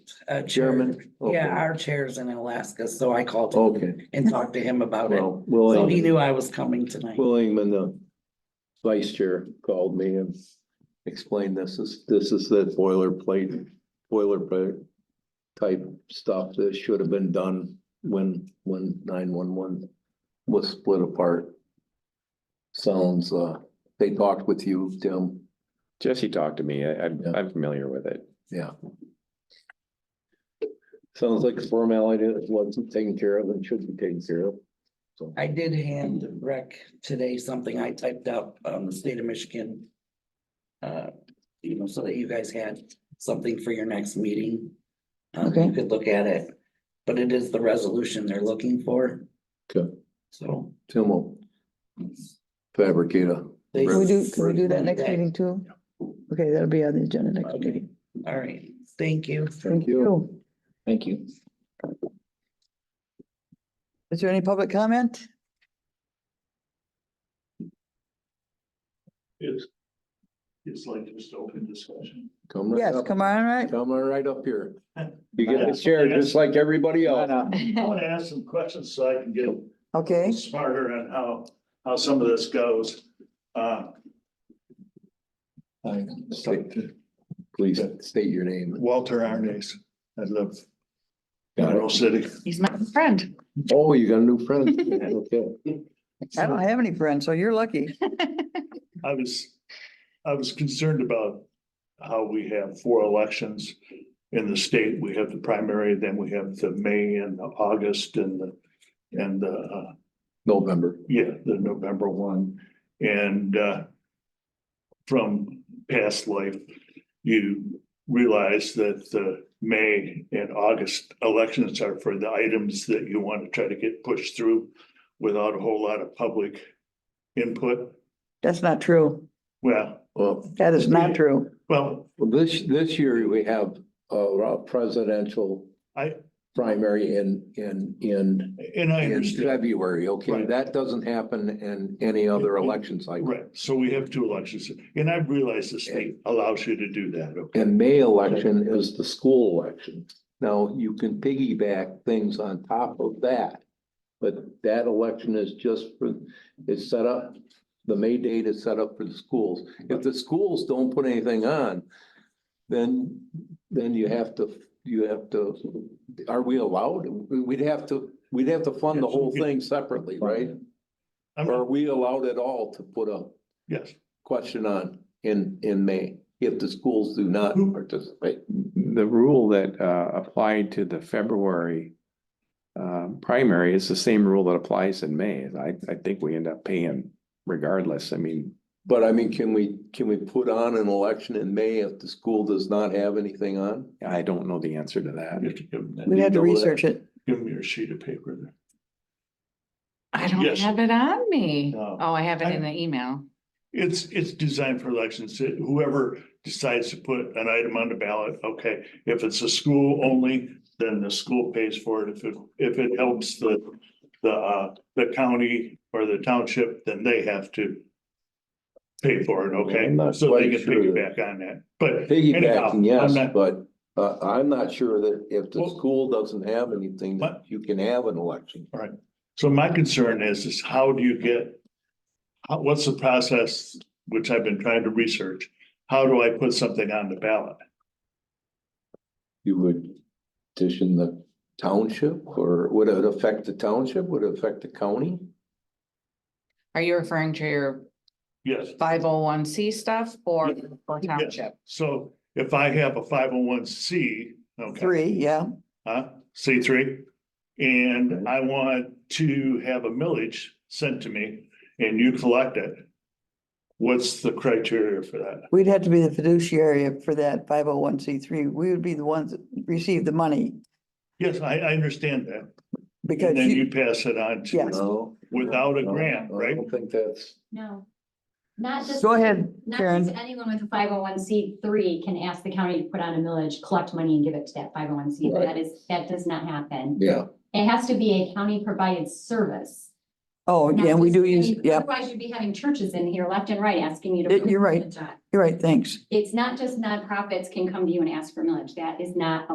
uh, chair. German? Okay. Yeah, our chair's in Alaska, so I called him Okay, and talked to him about it. well, So he Will, knew I was coming tonight. Will Ingman, the vice chair, called me and explained this is, this is that boilerplate, boilerplate type stuff that should have been done when, when nine one one was split apart. Sounds, uh, they talked with you, Tim, Jesse talked to me. I, I'm, Yeah. I'm familiar with it. yeah. Sounds like a formality that wasn't taken care of and should be taken care of, so. I did hand rec today something I typed up on the state of Michigan. Uh, you know, so that you guys had something for your next meeting. Um, Okay. you could look at it, but it is the resolution they're looking for. Okay. So. Tim will fabricate a. they- Can we do, can we do that next Okay. meeting too? Okay, that'll be on the agenda next Okay. meeting. All right, thank you. Thank Thank you. Is there any public comment? It's, it's like just open discussion. Come right Yes, up, come on, right? come on right up here. You get the chair just like everybody else. I want to ask some questions so I can get Okay, smarter on how, how some of this goes. Uh, State- Please state your name. Walter Arnes, I live in Got it. Mineral City. He's my friend. Oh, you got a new friend. Okay. I don't have any friends, so you're lucky. I was, I was concerned about how we have four elections in the state. We have the primary, then we have the May and the August and the, and the, uh, November. Yeah, the November one, and uh. From past life, you realize that the May and August elections are for the items that you want to try to get pushed through. Without a whole lot of public input, That's not true. well, Well, That is not true. well, this, this year we have a presidential I- primary in, in, in, and I in understand. February. Okay, Right. that doesn't happen in any other election cycle. Right, so we have two elections, and I realize the state allows you to do that, okay? And May election is the school election. Now, you can piggyback things on top of that. But that election is just for, it's set up, the May date is set up for the schools. If the schools don't put anything on, then, then you have to, you have to, are we allowed? We'd have to, we'd have to fund the whole thing separately, right? I'm- Are we allowed at all to put a Yes, question on in, in May if the schools do not participate? The rule that uh applied to the February. Uh, primary is the same rule that applies in May. I I think we end up paying regardless. I mean. But I mean, can we, can we put on an election in May if the school does not have anything on? I don't know the answer to that. you have to give them, We'd that. have to research it. give them your sheet of paper there. I don't Yes. have it on me. No. Oh, I have it in I- the email. It's, it's designed for elections. Whoever decides to put an item on the ballot, okay, if it's a school only, then the school pays for it. If it, if it helps the, the, uh, the county or the township, then they have to pay for it, I'm okay? not So they quite can sure that- piggyback on that, but anyhow, Piggybacking, I'm yes, not, but uh, I'm not sure that if the Well- school doesn't have anything, that What? you can have an election. so my concern is, is how do you get, how, what's the process, which I've been trying to research? How do I put something on the ballot? You would petition the township or would it affect the township? Would it affect the county? Are you referring to your Yes. five oh one C stuff or for Yeah. township? So if I have a five oh one C, okay, Three, yeah. uh, C three. Mhm. And I want to have a millage sent to me and you collect it. What's the criteria for that? We'd have to be the fiduciary for that five oh one C three. We would be the ones that receive the money Yes, I, I understand that. because And then you, you pass it on to, Yes. No. without a No, grant, I right? don't think that's, No, not just. Go ahead, Not Karen. just anyone with a five oh one C three can ask the county to put on a millage, collect money and give it to that five oh one C. Right. That is, that does not happen. yeah. It has to be a county provided service. oh, not yeah, we just- do I use, mean, yeah, Otherwise you'd be having churches in here left and right asking you to. Yeah, put you're right. millage on. you're right, thanks. It's not just nonprofits can come to you and ask for millage. That is not